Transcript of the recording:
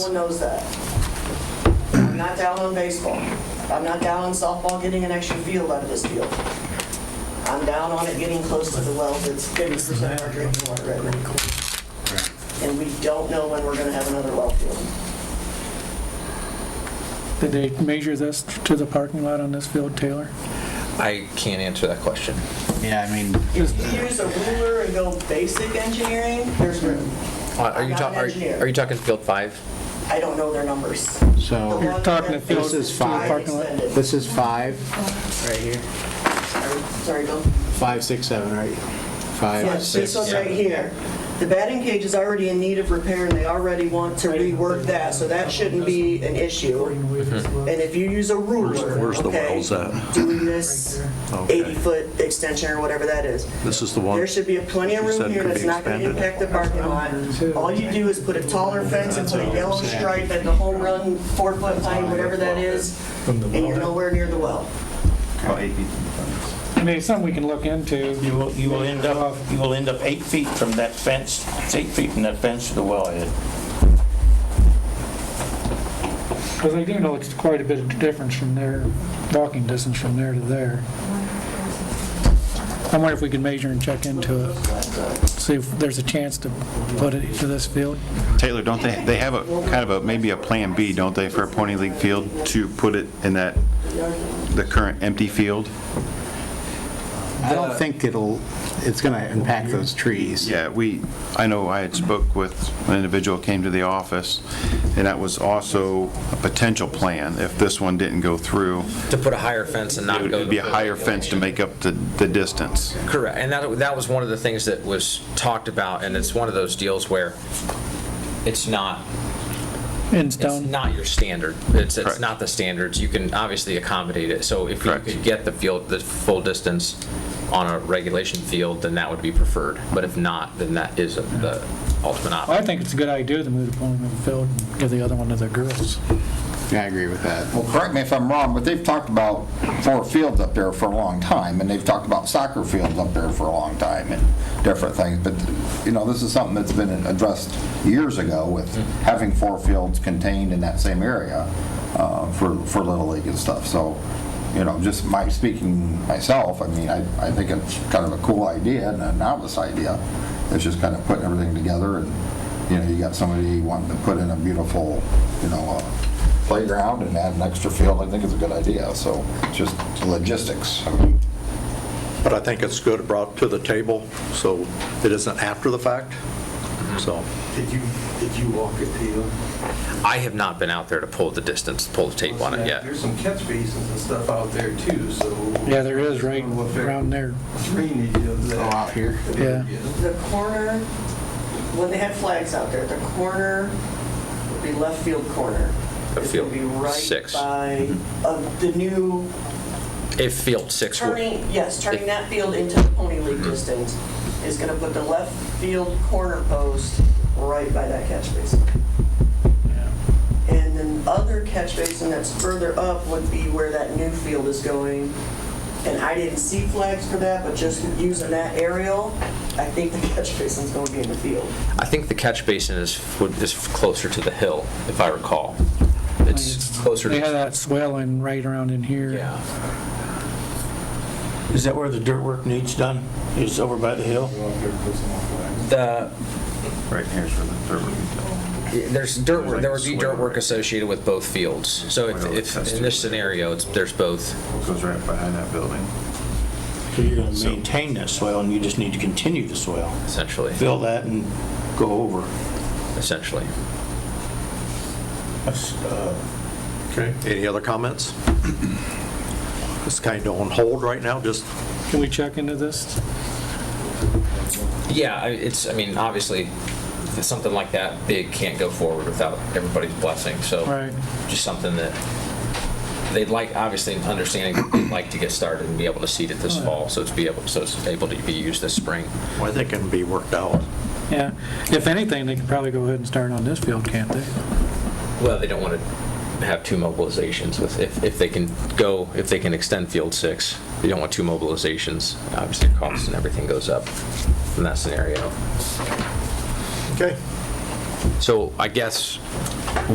Everyone knows that. I'm not down on baseball. I'm not down on softball getting an extra field out of this field. I'm down on it getting close to the well that's 50% of our drinking water right now. And we don't know when we're gonna have another well field. Did they measure this to the parking lot on this field, Taylor? I can't answer that question. Yeah, I mean, If you use a ruler and go basic engineering, there's room. Are you I'm not an talking, engineer. are you talking field five? I don't know their numbers. so You're talking the field This to is the fine. parking lot? this is five, right here, Sorry, Bill. five, six, seven, right? Yeah, Five, six, this one's right here. The batting cage is already in need of repair, and they already want to rework that, so that shouldn't be an issue. Mm-hmm. And if you use a ruler, Where's the okay, wells at? doing this Okay. 80-foot extension or whatever that is, This is the one. there should be a plenty of You room said here could that's be not going to expanded. impact the parking lot. All you do is put a taller fence and put a yellow stripe at the home run, four-foot line, whatever that is, and you're nowhere near the well. I mean, it's something we can look into. You will, you will end up, you will end up eight feet from that fence, it's eight feet from that fence to the wellhead. Because I do know it's quite a bit of difference from there, walking distance from there to there. I wonder if we could measure and check into it, see if there's a chance to put it to this field. Taylor, don't they, they have a, kind of a, maybe a Plan B, don't they, for a Pony League field to put it in that, the current empty field? I don't think it'll, it's gonna impact those trees. Yeah, we, I know I had spoke with an individual came to the office, and that was also a potential plan, if this one didn't go through. To put a higher fence and not It go. to would be a the- higher fence to make up the, the distance. Correct, and that, that was one of the things that was talked about, and it's one of those deals where it's not, Ends it's down, not your standard. It's, it's Correct. not the standards. You can obviously accommodate it. So if you Correct. could get the field, the full distance on a regulation field, then that would be preferred. But if not, then that is the ultimate option. Well, I think it's a good idea to move the bowling field and give the other one to the girls. I agree with that. Well, correct me if I'm wrong, but they've talked about four fields up there for a long time, and they've talked about soccer fields up there for a long time and different things, but, you know, this is something that's been addressed years ago with having four fields contained in that same area uh, for, for Little League and stuff, so, you know, just my, speaking myself, I mean, I, I think it's kind of a cool idea and a novice idea. It's just kind of putting everything together and, you know, you got somebody wanting to put in a beautiful, you know, uh, playground and add an extra field, I think is a good idea, so it's just logistics. I mean, But I think it's good brought to the table, so it isn't after the fact, so. Did you, did you walk it, Peter? I have not been out there to pull the distance, pull the tape on it yet. There's some catch basins and stuff out there too, so. Yeah, there is right Will affect around there. Drainage of Oh, that. out here? Yeah. The corner, when they had flags out there, the corner would be left field corner. Left It's gonna field, be right six. Mm-hmm. By, of the new If field six were. turning, yes, turning that field into the Pony League distance is gonna put the left field corner post right by that catch basin. And then the other catch basin that's further up would be where that new field is going. And I didn't see flags for that, but just using that aerial, I think the catch basin's gonna be in the field. I think the catch basin is, would- is closer to the hill, if I recall. It's closer They had to, that swelling right around in here. yeah. Is that where the dirt work needs done? Is over by the hill? The, Right here's where the dirt would be. there's dirt, work- there would be dirt work associated with both fields. So if, if, in this scenario, it's, there's both. Goes right behind that building. So you're gonna maintain that swale, and you just need to continue the swale. Essentially, Fill that and go over. essentially. That's, uh, Okay. Any other comments? It's kind of on hold right now, just, Can we check into this? Yeah, I- it's, I mean, obviously, if something like that big can't go forward without everybody's blessing, so. Right. Just something that they'd like, obviously, understanding they'd like to get started and be able to seed it this fall, so it's be able, so it's able to be used this spring. well, I think it can be worked out. Yeah. If anything, they could probably go ahead and start on this field, can't they? Well, they don't want to have two mobilizations with, if, if they can go, if they can extend field six, they don't want two mobilizations, obviously, costs and everything goes up in that scenario. Okay. So I guess